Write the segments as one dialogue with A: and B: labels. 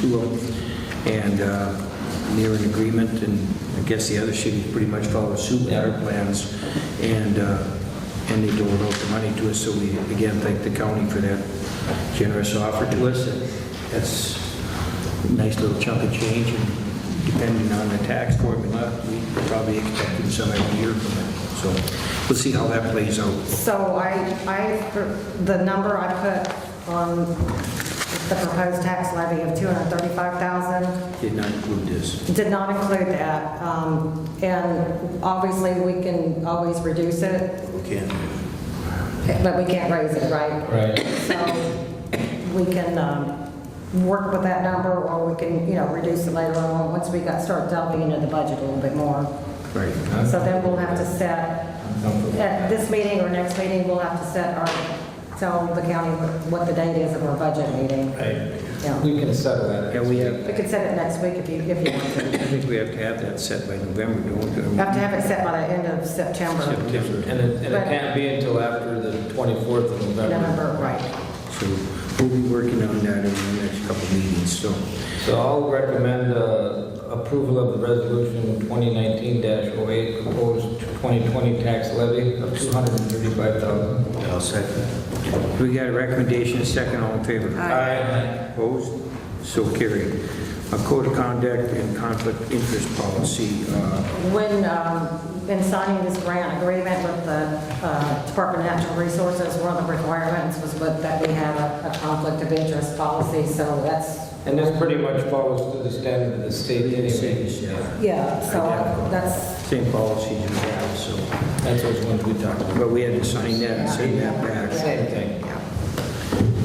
A: two of them, and uh, near an agreement, and I guess the other cities pretty much follow suit with our plans, and, uh, and they doled out the money to us, so we again thank the county for that generous offer to us, and that's a nice little chunk of change, and depending on the tax formula, we probably expected some every year from it, so we'll see how that plays out.
B: So I, I, the number I put on the proposed tax levy of 235,000
A: Did not include this.
B: did not include that. Um, And obviously, we can always reduce it,
A: Okay.
B: but we can't raise it, right?
C: Right.
B: So we can um, work with that number, or we can, you know, reduce it later on, once we got, start delving into the budget a little bit more.
A: Right.
B: So then we'll have to set
C: I'm comfortable with that.
B: At this meeting or next meeting, we'll have to set our, tell the county what the date is of our budget meeting. Yeah.
C: We can settle that.
A: Yeah, we have-
B: We could set it next week if you, if you want
A: I think we have to have that set by November, don't
B: to.
A: we?
B: Have to have it set by the end of September,
A: September.
C: And it, and it can't be until after the 24th of November.
B: November, right.
A: So we'll be working on that in the next couple of meetings, so.
C: So I'll recommend uh, approval of the resolution 2019-08, proposed 2020 tax levy of $235,000.
A: I'll second. We got a recommendation, a second, all in favor?
C: Aye.
A: Opposed? So carried. A code of conduct and conflict interest policy, uh,
B: When, um, in signing this grant agreement with the uh, Department of Natural Resources, one of the requirements was with- that we have a a conflict of interest policy, so that's,
C: And this pretty much follows to the standard of the state anyway.
A: Same, yeah.
B: yeah, so that's,
A: same policies we have, so.
C: That's which one we talked about.
A: But we had to sign that and send that back.
C: Same thing.
B: yeah.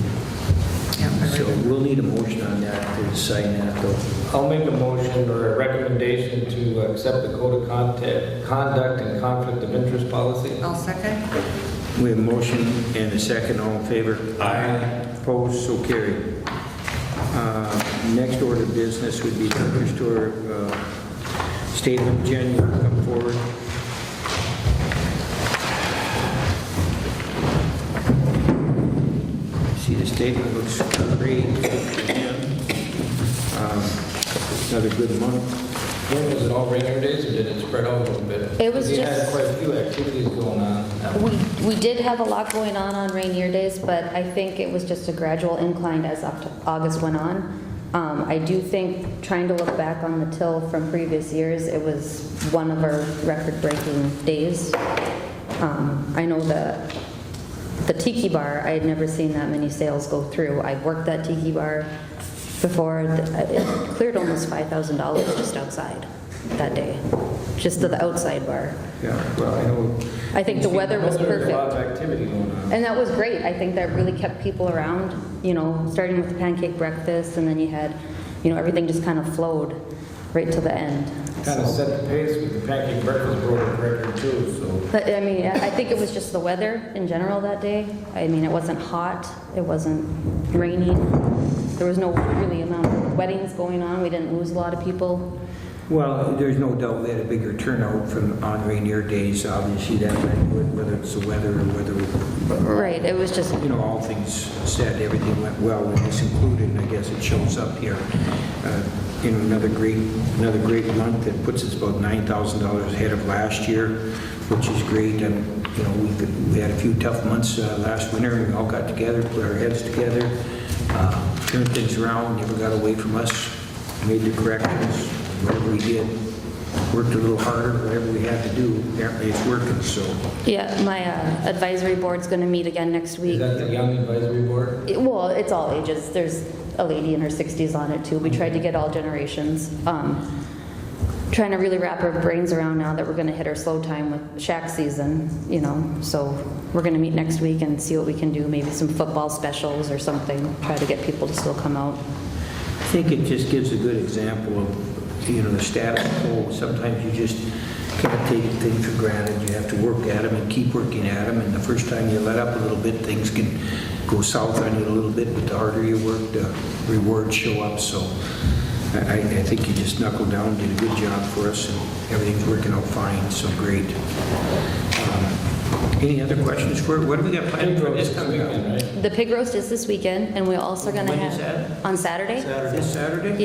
B: Yeah, I
A: So
B: agree.
A: we'll need a motion on that to sign that though.
C: I'll make a motion or a recommendation to accept the code of contact- conduct and conflict of interest policy.
B: I'll second.
A: We have a motion and a second, all in favor?
C: Aye.
A: Opposed, so carried. Uh, Next order of business would be liquor store uh, statement. Jen, you can come forward. See, the statement looks great. Um, Another good month.
C: When was it all rainier days, or did it spread out a little bit?
D: It was
C: We had
D: just-
C: quite a few activities going on.
D: We, we did have a lot going on on rainier days, but I think it was just a gradual incline as Oct- August went on. Um, I do think, trying to look back on the till from previous years, it was one of our record-breaking days. Um, I know the, the tiki bar, I had never seen that many sales go through. I worked that tiki bar before, it cleared almost $5,000 just outside that day, just the outside bar.
A: Yeah, well, I know.
D: I think the weather was
C: There a lot
D: perfect.
C: of activity going on.
D: And that was great. I think that really kept people around, you know, starting with the pancake breakfast and then you had, you know, everything just kind of flowed right till the end.
C: Kind of set the pace with the pancake breakfast broke a record too, so.
D: But I mean, I I think it was just the weather in general that day. I mean, it wasn't hot, it wasn't raining. There was no really amount of weddings going on. We didn't lose a lot of people.
A: Well, there's no doubt we had a bigger turnout from on rainier days, obviously, that, whether it's the weather or whether,
D: Right, it was just,
A: you know, all things said, everything went well, and this included, and I guess it shows up here. Uh, You know, another great, another great month that puts us about $9,000 ahead of last year, which is great. And, you know, we we had a few tough months uh, last winter, and we all got together, put our heads together, uh, turned things around, never got away from us, made the corrections, whatever we did, worked a little harder, whatever we had to do, apparently it's working, so.
D: yeah, my uh, advisory board's going to meet again next
C: Is
D: week.
C: that the young advisory board?
D: It- Well, it's all ages. There's a lady in her 60s on it too. We tried to get all generations. Um, trying to really wrap our brains around now that we're going to hit our slow time with shack season, you know. So we're going to meet next week and see what we can do. Maybe some football specials or something. Try to get people to still come out.
A: I think it just gives a good example of, you know, the status quo. Sometimes you just can't take things for granted. You have to work at them and keep working at them. And the first time you let up a little bit, things can go south on you a little bit. But the harder you work, the rewards show up. So I, I I think you just knuckled down, did a good job for us, and everything's working out fine. So great. Um, Any other questions for, what do we got planned for this coming up?
C: weekend, right?
D: The pig roast is this weekend, and we're also going to
A: When is
D: have... On Saturday?
A: Saturday? This Saturday?